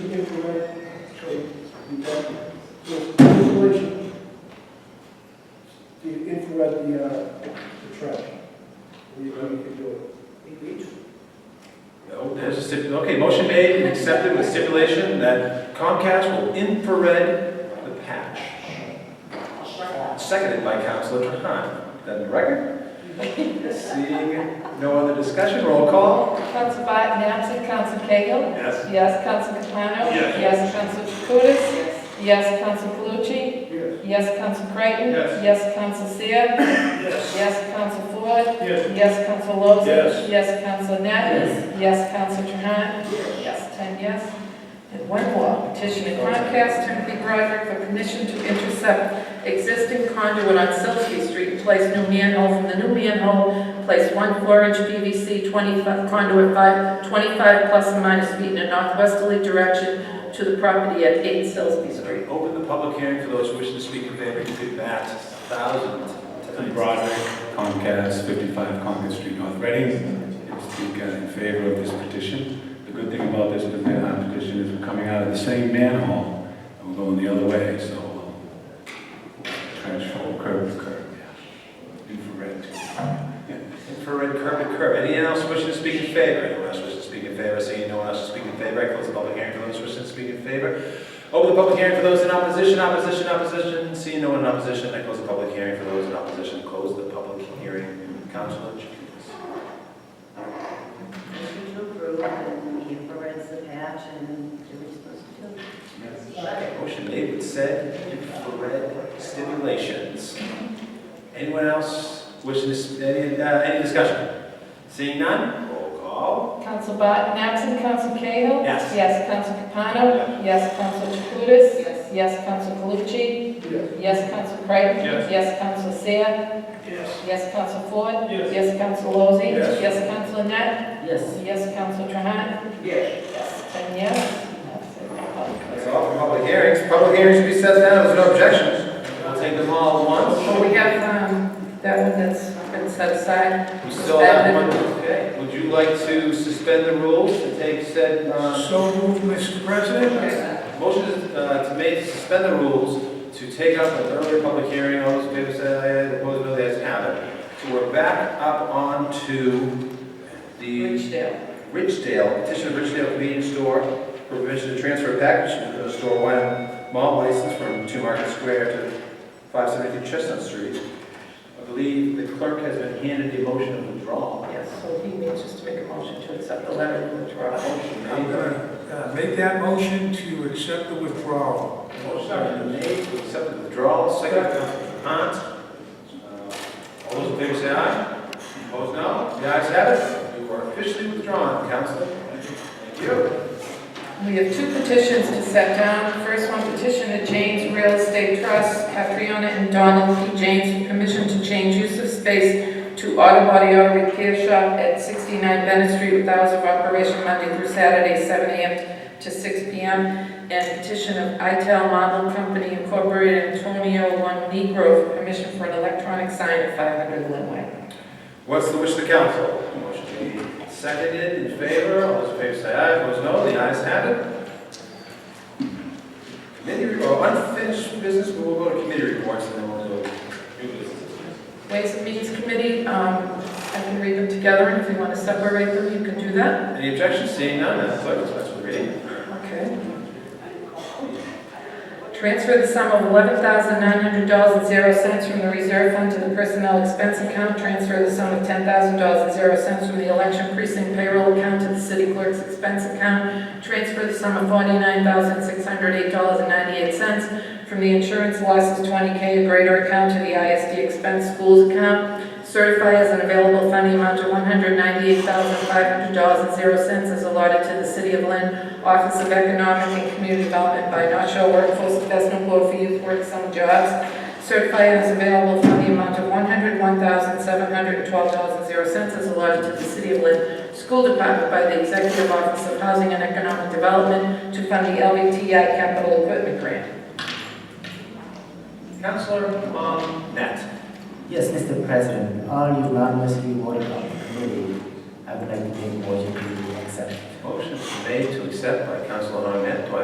Okay, motion made and accepted with stipulation that Comcast will infrared the patch. Seconded by Counselor Trahan. That in the record? Seeing no other discussion, roll call. Council Biden, absent, Council Cahill. Yes. Yes, Council Capano. Yes. Council Jacutis. Yes, Council Calucci. Yes. Yes, Council Creighton. Yes. Yes, Council Seer. Yes, Council Floyd. Yes. Yes, Council Lozey. Yes. Yes, Council Net. Yes, Council Trahan. Yes, ten yes. And one more, petition to Comcast Timothy Broderick for permission to intercept existing conduit on Silsby Street, and place new manhole from the new manhole, place one four-inch PVC 25 conduit five, 25 plus or minus feet in a northwesterly direction to the property at 8 Silsby Street. Open the public hearing for those wishing to speak in favor to that thousand tonight. Broderick, Comcast, 55 Concord Street, North Reading. I Speak uh, in favor of this petition. The good thing about this uh, petition is we're coming out of the same manhole, and we're going the other way, so we'll trench hole, curb to curb, yeah. Infrared too. Infrared curb to curb. Anyone else wishing to speak in favor? Anyone else wishing to speak in favor? Seeing no one else to speak in favor, I close the public hearing for those wishing to speak in favor. Open the public hearing for those in opposition, opposition, opposition. Seeing no one in opposition, I close the public hearing for those in opposition. Close the public hearing. Councilor Chakoudas. Motion to approve and he provides the patch and do what he's supposed to do. Motion made with said infrared stimulations. Anyone else wishing to, s- any, uh, any discussion? Seeing none, roll call. Council Barton, absent, Council Cahill. Yes. Yes, Council Capano. Yes, Council Jacutis. Yes. Yes, Council Calucci. Yes, Council Creighton. Yes. Yes, Council Seer. Yes. Yes, Council Floyd. Yes. Yes, Council Lozey. Yes. Yes, Council Net. Yes. Yes, Council Trahan. Yes. Yes. Ten yes. That's it. That's all for public hearings. Public hearings should be set down, there's no objections. We'll take them all at Well, we have, um, that one that's been set aside. once. We still have one, okay. Would you like to suspend the rules to take said, uh, So moved, Mr. President. motion is, uh, to make, to suspend the rules to take up an earlier public hearing, all those in favor say aye, opposed no, the ayes have it. So we're back up on to the Ridgedale. Ridgedale, petition of Ridgedale Convenience Store for permission to transfer a package to the store wine malt license from Two Market Square to 572 Chestnut Street. I believe the clerk has been handed the motion of withdrawal. Yes, so he needs just to make a motion to accept the letter of withdrawal. Motion I'm made. going to make that motion to accept the withdrawal. Motion made to accept the withdrawal, second by Councilman Hunt. Uh, All those in favor say aye. Opposed, no. The ayes have it. You are officially withdrawn, Councilor. Thank you. We have two petitions to set down. First one, petition to James Real Estate Trust, Catriona and Donald P. James, for permission to change use of space to auto body auto repair shop at 69 Bennett Street with hours of operation Monday through Saturday, 7 a.m. to 6 p.m. And petition of ITEL Model Company Incorporated, Antonio One Negro, for permission for an electronic sign at 500 Linway. What's the wish of the council? Motion made, seconded, in favor, all those in favor say aye, opposed no, the ayes have it. Committee, or unfinished business, but we'll go to committee reports and then we'll do new business. Ways and Means Committee, um, I can read them together, and if you want to separate them, you can do that. Any objections, seeing none, that's clerk will dispense with reading. Okay. Transfer the sum of eleven thousand nine hundred dollars and zero cents from the reserve fund to the personnel expense account. Transfer the sum of ten thousand dollars and zero cents from the election precinct payroll account to the city clerk's expense account. Transfer the sum of forty-nine thousand six hundred eight dollars and ninety-eight cents from the insurance losses twenty K or greater account to the ISD expense schools account. Certify as an available fund the amount of one hundred ninety-eight thousand five hundred dollars and zero cents as allotted to the city of Lynn Office of Economic and Community Development by North Shore Workforce Investment Board for Youth Work Summer Jobs. Certified as available for the amount of one hundred one thousand seven hundred twelve dollars and zero cents as allotted to the City of Lynn School Department by the Executive Office of Housing and Economic Development to fund the LBTI Capital Equipment Grant. Counselor, um, Net. Yes, Mr. President, all unanimously voted on the committee. I would like to make a motion to accept. Motion made to accept by Counselor Net, do I